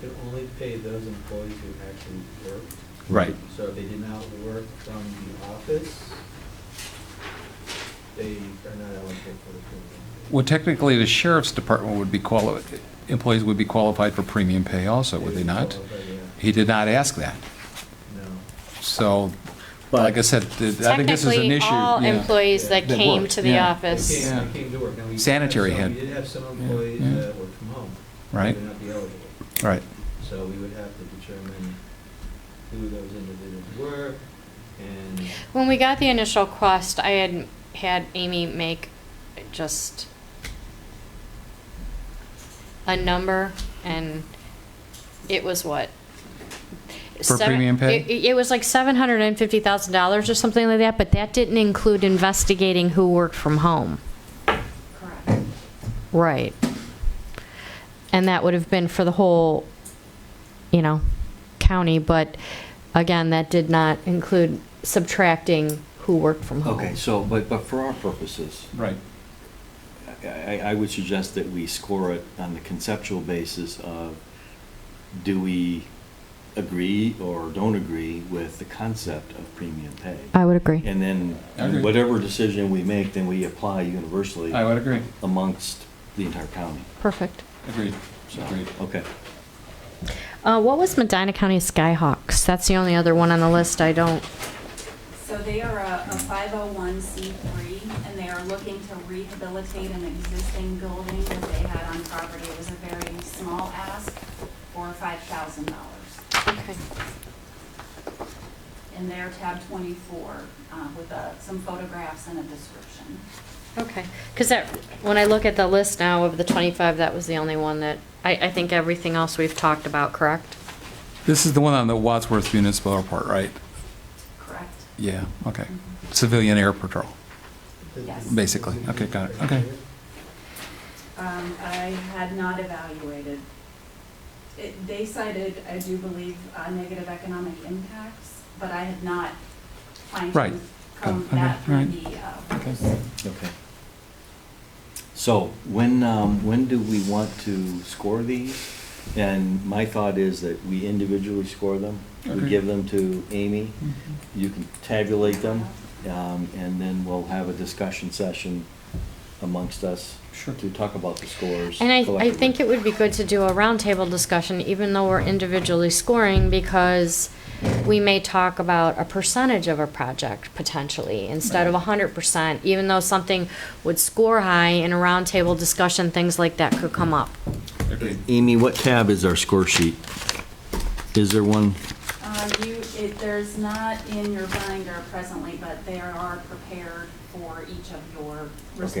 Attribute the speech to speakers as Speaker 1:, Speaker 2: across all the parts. Speaker 1: could only pay those employees who actually worked.
Speaker 2: Right.
Speaker 1: So if they did not work from the office, they are not eligible for the premium.
Speaker 2: Well, technically, the sheriff's department would be quali, employees would be qualified for premium pay also, would they not? He did not ask that.
Speaker 1: No.
Speaker 2: So,
Speaker 3: But-
Speaker 2: like I said, th- I think this is an
Speaker 4: Technically,
Speaker 2: issue.
Speaker 4: all
Speaker 2: yeah.
Speaker 4: employees that
Speaker 2: That
Speaker 4: came
Speaker 2: worked,
Speaker 4: to the
Speaker 2: yeah.
Speaker 1: They
Speaker 4: office.
Speaker 1: came, they came to work. Now, we did have
Speaker 2: Sanitary
Speaker 1: some-
Speaker 2: had-
Speaker 1: We did have some
Speaker 2: yeah,
Speaker 1: employees
Speaker 2: yeah.
Speaker 1: that worked from home. They
Speaker 2: Right.
Speaker 1: would not be eligible.
Speaker 2: Right.
Speaker 1: So we would have to determine who those individuals were and.
Speaker 4: When we got the initial quest, I had had Amy make just a number, and it was what?
Speaker 2: For
Speaker 4: Seven-
Speaker 2: premium pay?
Speaker 4: It, it was like seven hundred and fifty thousand dollars or something like that, but that didn't include investigating who worked from home.
Speaker 5: Correct.
Speaker 4: Right. And that would have been for the whole, you know, county, but again, that did not include subtracting who worked from home.
Speaker 3: Okay, so, but, but for our purposes,
Speaker 2: Right.
Speaker 3: I- I, I would suggest that we score it on the conceptual basis of, do we agree or don't agree with the concept of premium pay?
Speaker 4: I would agree.
Speaker 3: And then,
Speaker 2: I agree.
Speaker 3: whatever decision we make, then we apply universally
Speaker 2: I would agree.
Speaker 3: amongst the entire county.
Speaker 4: Perfect.
Speaker 2: Agreed.
Speaker 3: So,
Speaker 2: Agreed.
Speaker 3: okay.
Speaker 4: Uh, what was Medina County Skyhawks? That's the only other one on the list I don't.
Speaker 5: So they are a oh a 501c3, and they are looking to rehabilitate an existing building that they had on property. It was a very small ask for $5,000.
Speaker 4: Okay.
Speaker 5: And they're tab 24 uh, with uh, some photographs and a description.
Speaker 4: Okay. Because that, when I look at the list now of the 25, that was the only one that, I, I think everything else we've talked about, correct?
Speaker 2: This is the one on the Wadsworth Municipal Airport, right?
Speaker 5: Correct?
Speaker 2: Yeah, okay.
Speaker 5: Mhm.
Speaker 2: Civilian Air Patrol.
Speaker 5: Yes.
Speaker 2: Basically. Okay, got it. Okay.
Speaker 5: Um, I had not evaluated. It, they cited, I do believe, uh, negative economic impacts, but I had not
Speaker 2: Right.
Speaker 5: fine-tuned combed
Speaker 2: Okay,
Speaker 5: that through
Speaker 2: right.
Speaker 5: the, uh,
Speaker 2: Okay.
Speaker 3: Oh, Okay. So when, um, when do we want to score these? And my thought is that we individually score them. We
Speaker 2: Okay.
Speaker 3: give them to Amy. You can tabulate them, um, and then we'll have a discussion session amongst us
Speaker 2: Sure.
Speaker 3: to talk about the scores.
Speaker 4: And I, I
Speaker 3: collectively.
Speaker 4: think it would be good to do a roundtable discussion, even though we're individually scoring, because we may talk about a percentage of a project potentially, instead of a hundred percent, even though something would score high in a roundtable discussion, things like that could come up.
Speaker 2: Agreed.
Speaker 3: Amy, what tab is our score sheet? Is there one?
Speaker 5: Uh, you, it, there's not in your binder presently, but they are prepared for each of your
Speaker 3: Okay,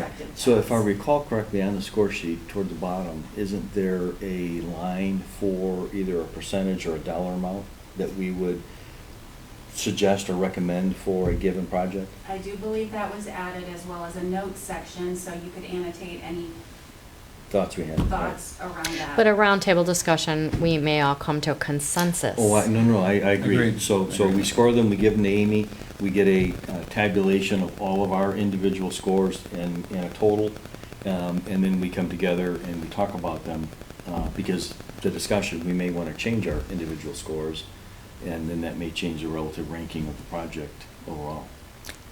Speaker 5: respective.
Speaker 3: so if I
Speaker 5: tests.
Speaker 3: recall correctly, on the score sheet toward the bottom, isn't there a line for either a percentage or a dollar amount that we would suggest or recommend for a given project?
Speaker 5: I do believe that was added as well as a notes section, so you could annotate any
Speaker 3: Thoughts we had? right?
Speaker 5: thoughts around that.
Speaker 4: But a roundtable discussion, we may all come to a consensus.
Speaker 3: Oh, I, no, no, I, I agree.
Speaker 2: Agreed.
Speaker 3: So, so we
Speaker 2: Agreed.
Speaker 3: score them, we give them to Amy, we get a uh, tabulation of all of our individual scores and, and a total. Um, and then we come together and we talk about them, uh, because the discussion, we may wanna change our individual scores. And then that may change the relative ranking of the project overall.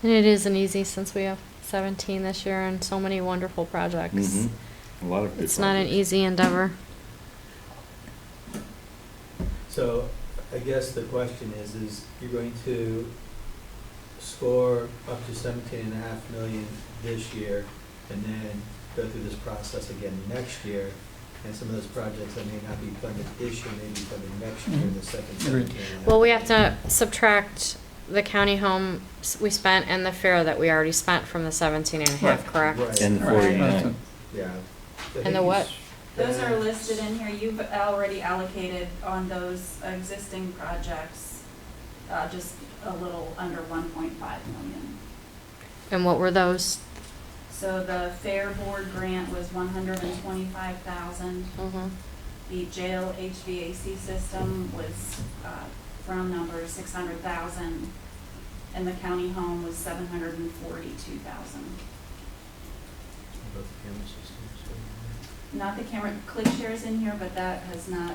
Speaker 4: And it isn't easy since we have seventeen this year and so many wonderful projects.
Speaker 3: Mhm. A lot of. good
Speaker 4: It's not an
Speaker 3: projects.
Speaker 4: easy endeavor.
Speaker 1: So I guess the question is, is you're going to score up to seventeen and a half million this year and then go through this process again next year? And some of those projects that may not be funded this year, may be funded next year, the second
Speaker 2: Agreed.
Speaker 1: seventeen. and a half
Speaker 4: Well, we have to subtract the county home s- we spent and the fair that we already spent from the seventeen and a half,
Speaker 2: Right.
Speaker 4: correct?
Speaker 1: Right.
Speaker 3: And the
Speaker 4: Right.
Speaker 3: forty-nine.
Speaker 1: Yeah. I
Speaker 4: And
Speaker 1: think
Speaker 4: the what?
Speaker 1: you s-
Speaker 5: Those are
Speaker 1: uh,
Speaker 5: listed in here, you've already allocated on those existing projects, uh, just a little under one point five million.
Speaker 4: And what were those?
Speaker 5: So the Fair Board grant was one hundred and twenty-five thousand, the jail HVAC system was, uh, round number, six hundred thousand, and the county home was seven hundred and forty-two thousand.
Speaker 1: Both camera systems, so-
Speaker 5: Not uh, the camera, click shares in here, but that has not,